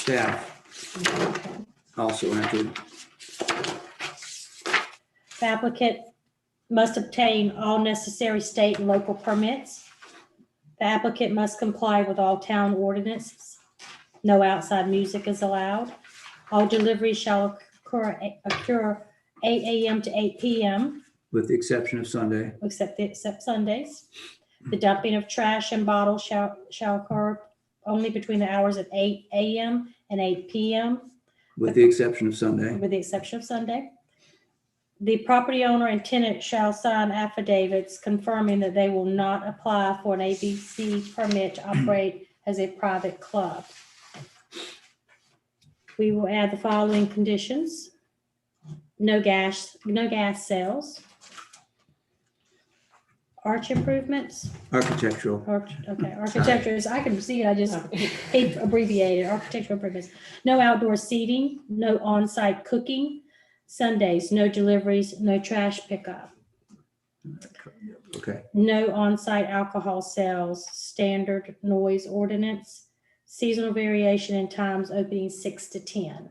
staff also entered. The applicant must obtain all necessary state and local permits. The applicant must comply with all town ordinances. No outside music is allowed. All deliveries shall occur, occur eight AM to eight PM, with the exception of Sunday. except, except Sundays. The dumping of trash and bottles shall, shall occur only between the hours of eight AM and eight PM. With the exception of Sunday. with the exception of Sunday. The property owner and tenant shall sign affidavits confirming that they will not apply for an ABC permit to operate as a private club. We will add the following conditions. No gas, no gas sales. Arch improvements, Architectural. Arch- okay, architecture is, I can see it, I just he abbreviated, architectural purpose. No outdoor seating, no on-site cooking, Sundays, no deliveries, no trash pickup, Okay. no on-site alcohol sales, standard noise ordinance, seasonal variation in times opening six to ten,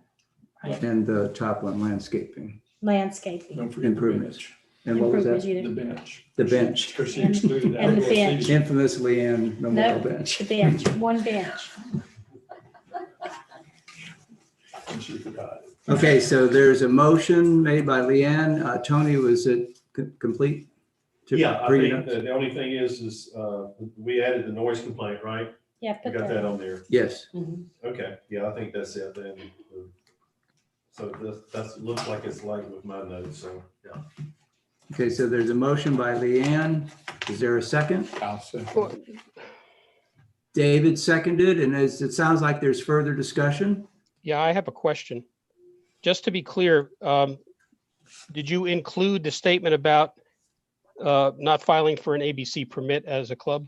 And the top one, landscaping. landscaping. Don't forget the Improvements. bench. And what was that? improvement The unit, bench. The bench. Because she And excluded the outdoor bench. seating. Infamous Leanne Memorial Bench. The bench, one bench. And she forgot. it. Okay, so there's a motion made by Leanne. Uh, Tony, was it co- complete? To- Yeah, I for you think to- the, the only thing is, is, uh, we added the noise complaint, right? Yeah, You put got that, that on there. Yes, Okay, yeah, I think that's it then. So this, that's, looks like it's like with my notes, so, yeah. okay, so there's a motion by Leanne. Is there a second? I'll second. David seconded, and as it sounds like there's further discussion. Yeah, I have a question. Just to be clear, um, did you include the statement about uh, not filing for an ABC permit as a club?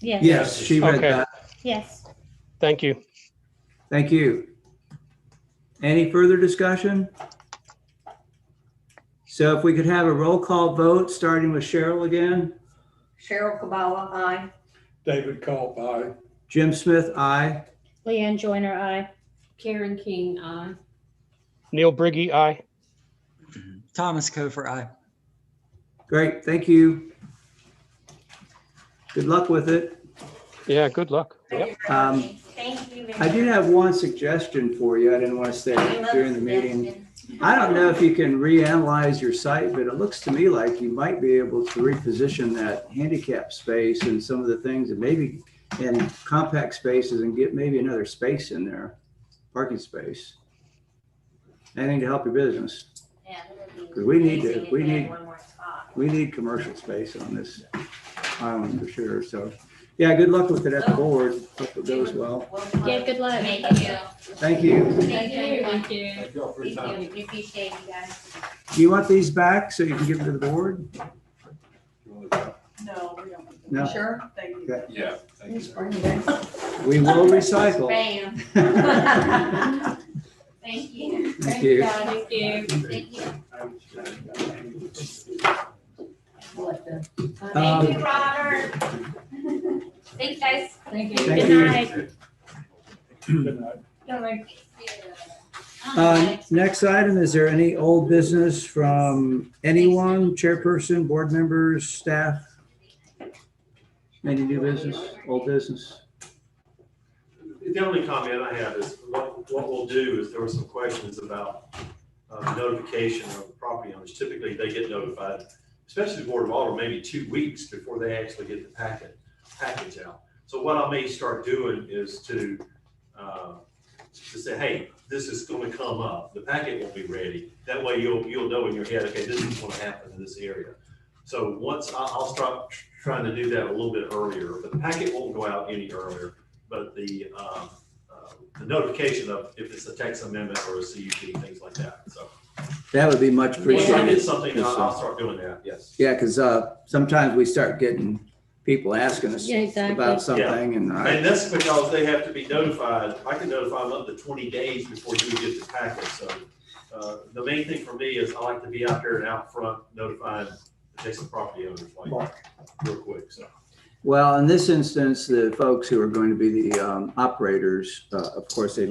yes, Yes, she read Okay. that. yes. Thank you. Thank you. Any further discussion? So if we could have a roll call vote, starting with Cheryl again. Cheryl Kabala, aye. David Culp, aye. Jim Smith, aye. Leanne Joyner, I. Karen King, uh, aye. Neil Briggy, aye. Thomas Kofer, aye. Great, thank you. Good luck with it. Yeah, good luck. Yep. Um, Thank you. I did have one suggestion for you. I didn't want to say it during the meeting. I don't know if you can reanalyze your site, but it looks to me like you might be able to reposition that handicap space and some of the things and maybe in compact spaces and get maybe another space in there, parking space. Anything to help your business. Because we need to- we need- We need commercial space on this island for sure. So, yeah, good luck with it at the board. Hope it goes well. Yeah, good luck. Thank you. Thank you. Thank you, everyone. Thank Thank y'all for your time. you. We appreciate you guys. Do you want these back so you can give them to the board? No, we don't. No. Sure. Thank you. Okay. Yeah. Just bring it back. We will recycle. Bam. Thank you. Thank you. Thank you. Thank you, We'll let them- Um, Thank you, Robert. Thanks, guys. Thank you. Thank Good you. night. Good night. Oh Um, next item, is there any old business from anyone, chairperson, board members, staff? Any new business, old business? The only comment I have is, what, what we'll do is, there were some questions about uh, notification of property owners. Typically, they get notified, especially the Board of Alderman, maybe two weeks before they actually get the packet, package out. So what I may start doing is to, uh, to say, hey, this is gonna come up, the packet will be ready. That way you'll, you'll know in your head, okay, this is gonna happen in this area. So once, I, I'll start trying to do that a little bit earlier, but the packet won't go out any earlier but the, um, uh, the notification of if it's a text amendment or a CUP, things like that, so. That would be much Once I get appreciated. something, I'll, I'll start doing that, yes. Yeah, because, uh, sometimes we start getting people asking us Yeah, exactly. about something and I, And that's because they have to be notified, I can notify them up to twenty days before you get the packet, so. Uh, the main thing for me is I like to be out there and out front notifying adjacent property owners like real quick, so. well, in this instance, the folks who are going to be the, um, operators, uh, of course, they